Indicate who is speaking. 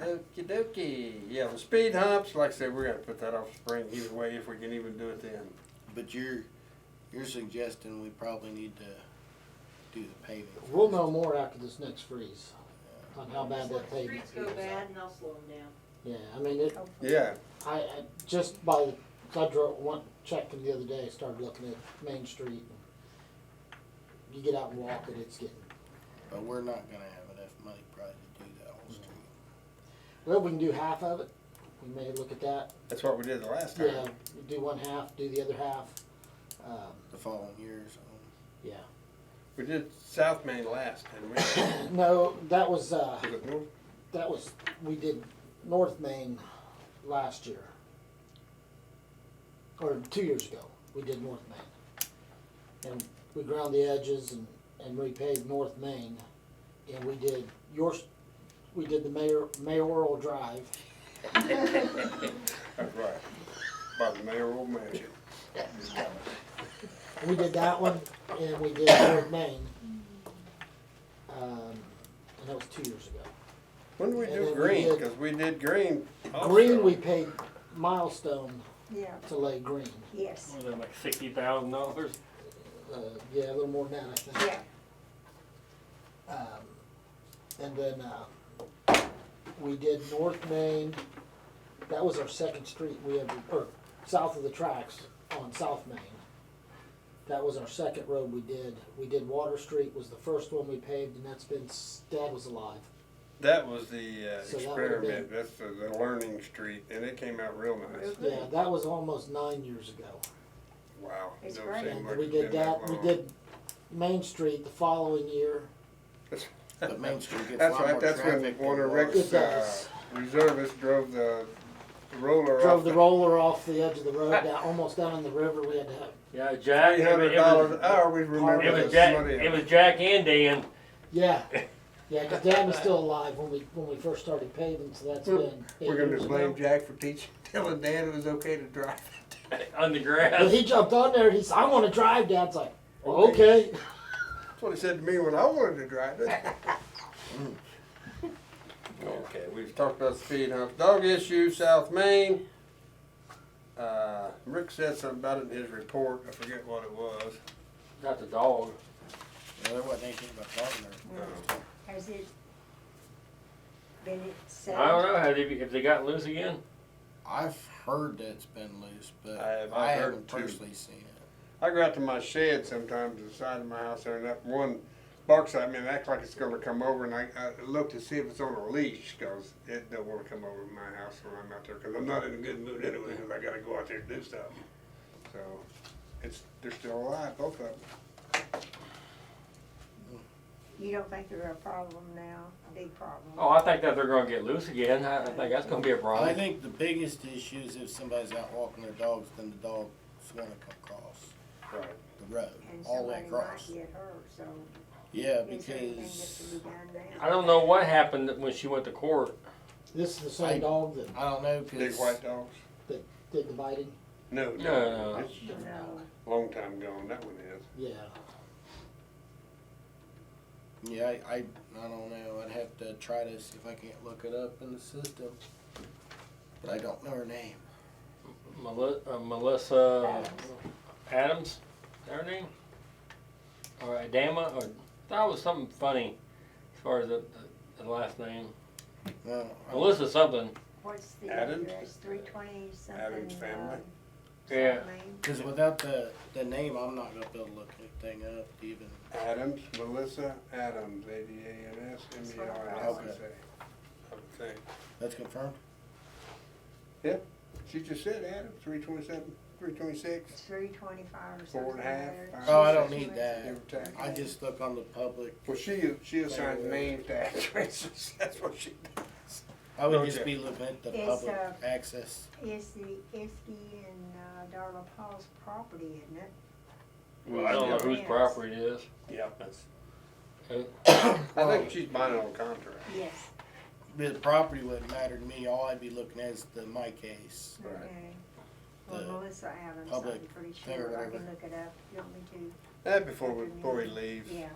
Speaker 1: Okie dokie. Yeah, the speed humps, like I said, we're gonna put that off spring either way if we can even do it then.
Speaker 2: But you're, you're suggesting we probably need to do the paving.
Speaker 3: We'll know more after this next freeze on how bad that
Speaker 4: Let the
Speaker 3: pavement
Speaker 4: streets go
Speaker 3: is.
Speaker 4: bad and I'll slow them down.
Speaker 3: Yeah, I mean, it,
Speaker 4: hopefully.
Speaker 1: Yeah,
Speaker 3: I, I, just by, the- I drove, one, checked it the other day, started looking at Main Street. and You get out and walk it, it's getting,
Speaker 2: But we're not gonna have enough money probably to do that whole street.
Speaker 3: well, we can do half of it. We may look at that.
Speaker 1: that's what we did the last time.
Speaker 3: Yeah, do one half, do the other half. Um,
Speaker 2: The following year or something.
Speaker 3: yeah.
Speaker 1: We did South Main last, didn't we?
Speaker 3: No, that was, uh,
Speaker 1: Was it North?
Speaker 3: that was, we did North Main last year. Or two years ago, we did North Main. And we ground the edges and, and repaved North Main. And we did yours, we did the mayor, mayoral drive.
Speaker 1: That's right. By the mayoral mansion.
Speaker 3: We did that one and we did North Main. Um, and that was two years ago.
Speaker 1: When did we
Speaker 3: And
Speaker 1: do
Speaker 3: then we
Speaker 1: green?
Speaker 3: did-
Speaker 1: Cause we did green. also.
Speaker 3: Green, we paid milestone
Speaker 4: Yeah,
Speaker 3: to lay green.
Speaker 4: yes,
Speaker 5: Was that like sixty thousand dollars?
Speaker 3: Uh, yeah, a little more than that, I think.
Speaker 4: yeah.
Speaker 3: Um, and then, uh, we did North Main, that was our second street we ever, or south of the tracks on South Main. That was our second road we did. We did Water Street was the first one we paved and that's been, s- Dad was alive.
Speaker 1: That was the uh,
Speaker 3: So that would've
Speaker 1: experiment. That's the, the learning street and it came out real nice.
Speaker 3: Yeah, that was almost nine years ago.
Speaker 1: Wow.
Speaker 4: It's
Speaker 1: doesn't
Speaker 4: great.
Speaker 1: seem
Speaker 3: And
Speaker 1: like
Speaker 3: we
Speaker 1: it's
Speaker 3: did
Speaker 1: been
Speaker 3: that, we
Speaker 1: long.
Speaker 3: did Main Street the following year.
Speaker 2: But Main Street gets a
Speaker 1: That's
Speaker 2: lot
Speaker 1: right,
Speaker 2: more
Speaker 1: that's when
Speaker 2: traffic.
Speaker 1: one of
Speaker 2: than
Speaker 1: Rick's,
Speaker 3: It
Speaker 1: uh,
Speaker 3: does.
Speaker 1: reservists drove the roller
Speaker 3: Drove
Speaker 1: off.
Speaker 3: the roller off the edge of the road, down, almost down in the river. We had to have,
Speaker 5: Yeah, Jack.
Speaker 1: Three
Speaker 5: it
Speaker 1: hundred
Speaker 5: was-
Speaker 1: dollars an hour, we remember
Speaker 5: It was
Speaker 1: this
Speaker 5: Jack,
Speaker 1: money.
Speaker 5: it was Jack and Dan.
Speaker 3: yeah, yeah, 'cause Dad was still alive when we, when we first started paving, so that's been.
Speaker 1: We're
Speaker 3: eight years
Speaker 1: gonna
Speaker 3: ago.
Speaker 1: blame Jack for teaching, telling Dan it was okay to drive.
Speaker 5: on the
Speaker 3: But
Speaker 5: grass.
Speaker 3: he jumped on there, he's, I wanna drive, Dad's like, okay.
Speaker 1: That's what he said to me when I wanted to drive it. Mm. Okay, we've talked about speed humps, dog issue, South Main. Uh, Rick said something about it in his report, I forget what it was.
Speaker 5: Not the dog.
Speaker 2: Well, there wasn't anything about Gardner.
Speaker 1: Um,
Speaker 4: Has it been settled?
Speaker 5: I don't know how they if they got loose again.
Speaker 2: I've heard that it's been loose, but
Speaker 1: I have-
Speaker 2: I
Speaker 1: I've heard
Speaker 2: haven't
Speaker 1: too.
Speaker 2: personally seen it.
Speaker 1: I go out to my shed sometimes, the side of my house there, and that one barks at me and acts like it's gonna come over, and I, I look to see if it's on a leash, cause it don't wanna come over to my house when I'm out there, cause I'm not in a good mood anyway, cause I gotta go out there and do something. So, it's, they're still alive, both of them.
Speaker 4: You don't think they're a problem now, big problem?
Speaker 5: Oh, I think that they're gonna get loose again. I, I think that's gonna be a
Speaker 2: I
Speaker 5: problem.
Speaker 2: think the biggest issue is if somebody's out walking their dogs, then the dog's wanna come across
Speaker 1: Right.
Speaker 2: the road,
Speaker 4: And
Speaker 2: all the way
Speaker 4: somebody might
Speaker 2: across.
Speaker 4: get hurt, so
Speaker 2: Yeah,
Speaker 4: is there anything that
Speaker 2: because,
Speaker 4: can be done now?
Speaker 5: I don't know what happened when she went to court.
Speaker 3: This is the
Speaker 2: I-
Speaker 3: same dog that
Speaker 2: I don't know,
Speaker 1: Big
Speaker 2: cause
Speaker 1: white dogs?
Speaker 3: did the biting,
Speaker 1: No,
Speaker 5: No, no.
Speaker 1: It's
Speaker 4: No,
Speaker 1: a long time gone, that one is.
Speaker 3: yeah.
Speaker 2: Yeah, I, I, I don't know. I'd have to try to see if I can't look it up in the system. But I don't know her name.
Speaker 5: Meli- uh, Melissa
Speaker 4: Adams.
Speaker 5: Adams, is that her name? Or Adama, or that was something funny as far as the, the, the last name.
Speaker 2: No, I-
Speaker 5: Melissa something.
Speaker 4: what's the
Speaker 1: Adams?
Speaker 4: address, three twenty something?
Speaker 1: Adams family?
Speaker 4: um,
Speaker 5: Yeah.
Speaker 4: something?
Speaker 2: Cause without the, the name, I'm not gonna be able to look anything up even.
Speaker 1: Adams, Melissa Adams, A D A N S M E R I S S A. I would think.
Speaker 2: That's confirmed?
Speaker 1: She just said Adams, three twenty-seven, three twenty-six,
Speaker 4: It's three twenty-five or
Speaker 1: Four and
Speaker 4: something.
Speaker 1: a half,
Speaker 4: there.
Speaker 1: five.
Speaker 2: Oh, I don't need
Speaker 1: give
Speaker 2: that.
Speaker 1: or take.
Speaker 2: I just look on the public.
Speaker 1: Well, she, she assigns names to actresses, that's what she does.
Speaker 2: I would
Speaker 1: Okay.
Speaker 2: just be looking at the
Speaker 4: It's,
Speaker 2: public
Speaker 4: uh,
Speaker 2: access.
Speaker 4: It's the Iskey and uh, Darla Paul's property, isn't it?
Speaker 5: Well, I don't know whose
Speaker 4: Yes.
Speaker 5: property it is.
Speaker 1: Yeah, that's.
Speaker 5: Uh,
Speaker 1: I think she's buying on contract.
Speaker 4: Yes.
Speaker 2: The property wouldn't matter to me. All I'd be looking at is the my case.
Speaker 1: Right.
Speaker 4: Okay. Well,
Speaker 2: The
Speaker 4: Melissa Adams, I'm
Speaker 2: public
Speaker 4: pretty
Speaker 2: or
Speaker 4: sure. I
Speaker 2: whatever.
Speaker 4: can look it up. You want me
Speaker 1: That before we, before we leave, Uh,
Speaker 4: to? Yeah.